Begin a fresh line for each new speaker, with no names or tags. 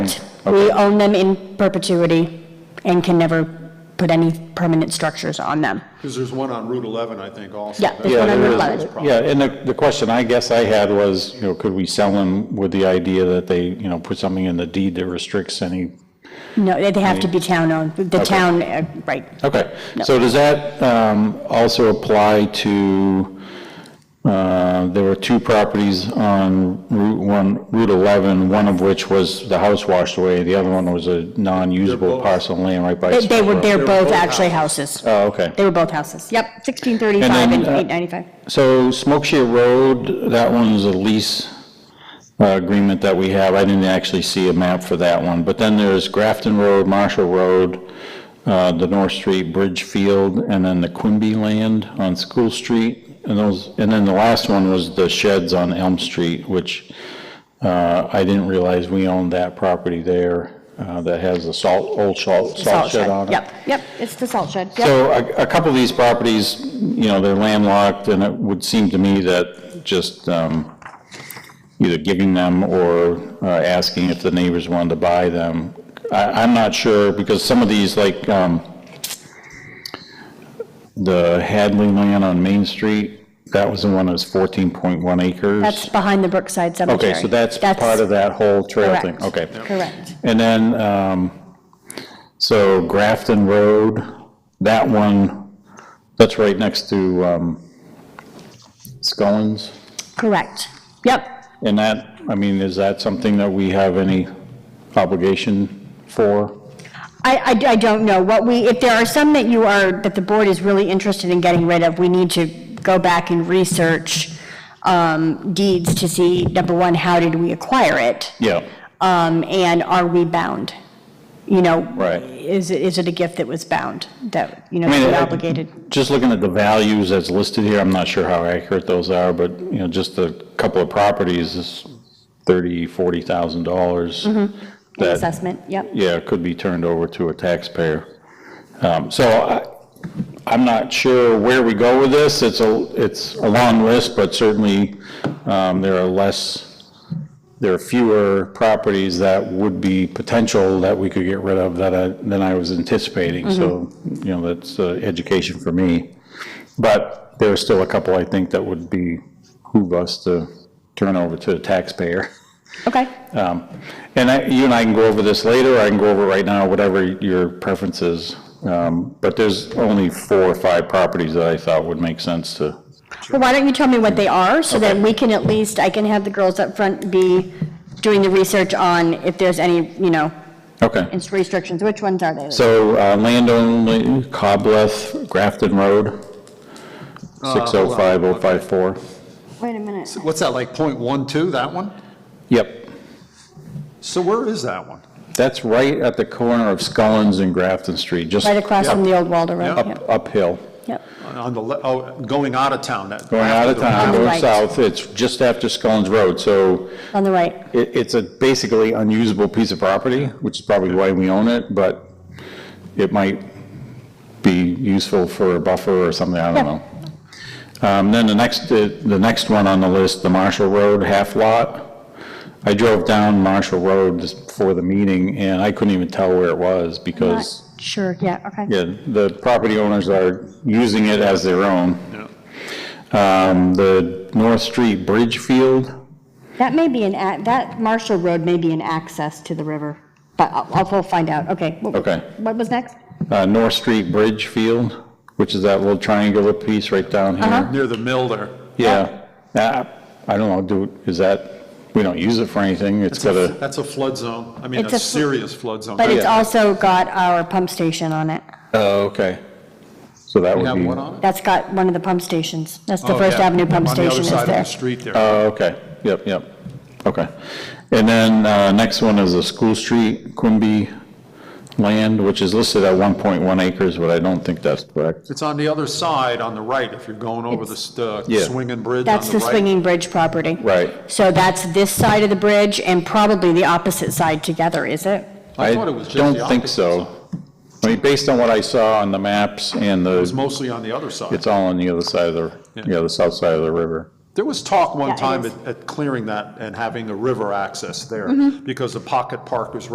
We own them in perpetuity and can never put any permanent structures on them.
Because there's one on Route 11, I think, also.
Yeah, there's
That's
one on
another
Route
problem.
11.
Yeah, and the, the question I guess I had was, you know, could we sell them with the idea that they, you know, put something in the deed that restricts any?
No, they- they have to be town-owned, the town, uh, right.
Okay,
No.
so does that um, also apply to, uh, there were two properties on Route 1, Route 11, one of which was the house washed away, the other one was a
They're
non-usable
both-
parcel of land right by.
They- They were,
Smith Road.
they're
They were
both
both
actually houses.
Oh, okay.
They were both houses. Yep, 1635
And
and
then, uh,
895.
So Smokeshare Road, that one is a lease uh, agreement that we have. I didn't actually see a map for that one. But then there's Grafton Road, Marshall Road, uh, the North Street Bridge Field, and then the Quimby Land on School Street. And those, and then the last one was the sheds on Elm Street, which uh, I didn't realize we owned that property there uh, that has the salt, old salt salt shed on it.
Yep, yep, it's the salt shed, yep.
So a, a couple of these properties, you know, they're landlocked, and it would seem to me that just um, either giving them or uh, asking if the neighbors wanted to buy them. I, I'm not sure, because some of these, like um, the Hadley land on Main Street, that was the one that was 14.1 acres.
That's behind the Brookside Cemetery.
Okay, so that's part of that whole trail thing?
correct.
Okay.
Correct.
And then, um, so Grafton Road, that one, that's right next to, um, Scullins.
Correct, yep.
And that, I mean, is that something that we have any obligation for?
I, I- I don't know, what we, if there are some that you are, that the board is really interested in getting rid of, we need to go back and research um, deeds to see, number one, how did we acquire it?
Yeah,
Um, And are we bound? You know?
Right.
Is, it is it a gift that was bound, that, you know,
I mean,
we're
I-
obligated?
Just looking at the values as listed here, I'm not sure how accurate those are, but, you know, just a couple of properties is thirty, forty thousand dollars. That,
Assessment, yep.
yeah, it could be turned over to a taxpayer. Um, So I, I'm not sure where we go with this. It's a, it's a long list, but certainly um, there are less, there are fewer properties that would be potential that we could get rid of that I, than I was anticipating. So, you know, that's uh, education for me. But there are still a couple, I think, that would be, who us to turn over to a taxpayer.
Okay,
Um, And I, you and I can go over this later, I can go over it right now, whatever your preference is. Um, But there's only four or five properties that I thought would make sense to,
well, why don't you tell me what they are, so that
Okay.
we can at least, I can have the girls up front be doing the research on if there's any, you know,
okay.
ins- restrictions, which ones are they?
So uh, land only, Cobleth, Grafton Road,
Uh, hold on.
605054.
Wait a minute.
What's that, like .12, that one?
Yep,
So where is that one?
that's right at the corner of Scullins and Grafton Street, just
Right across from the old Waldo Road,
Yeah.
yep,
up uphill.
yep.
On the, le- oh, going out of town, that.
Going out of town,
On the
going
right.
south, it's just after Scullins Road, so
on the right.
It, it's a basically unusable piece of property, which is probably why we own it, but it might be useful for a buffer or something, I don't know. Um, then the next, the the next one on the list, the Marshall Road half lot. I drove down Marshall Road just before the meeting, and I couldn't even tell where it was
Not
because,
Sure, yeah, okay.
yeah, the property owners are using it as their own.
Yeah.
Um, the North Street Bridge Field,
That may be an, ac- that Marshall Road may be an access to the river, but I'll, I'll we'll find out, okay. What-
Okay.
What was next?
Oh,
uh, North Street Bridge Field, which is that little triangular piece right down here.
Near the mill there.
Yeah. Uh, I don't know, do, is that, we don't use it for anything, it's
It's a-
got a,
That's a flood zone. I mean,
It's a
a
fl-
serious flood zone.
But it's
Yeah.
also got our pump station on it.
oh, okay. So that
You
would
have
be,
one
oh,
on it?
That's got one of the pump stations. That's the
Oh,
First
yeah.
Avenue pump station is
On the other side of the
there.
street there.
Oh, okay, yep, yep, okay. And then, uh, next one is a School Street Quimby land, which is listed at 1.1 acres, but I don't think that's correct.
It's on the other side, on the right, if you're going over the s- the
Yeah.
swinging bridge on the right.
That's the swinging bridge property.
Right.
So that's this side of the bridge and probably the opposite side together, is it?
I thought it was just the
I don't think
opposite
so. I mean, based on what I saw on the maps and the.
It's mostly on the other side.
It's all on the other side of the, yeah, the south side of the river.
There was talk
Yeah,
one
it
time
is. Mm-hmm.
at- at clearing that and having a river access there because the pocket park was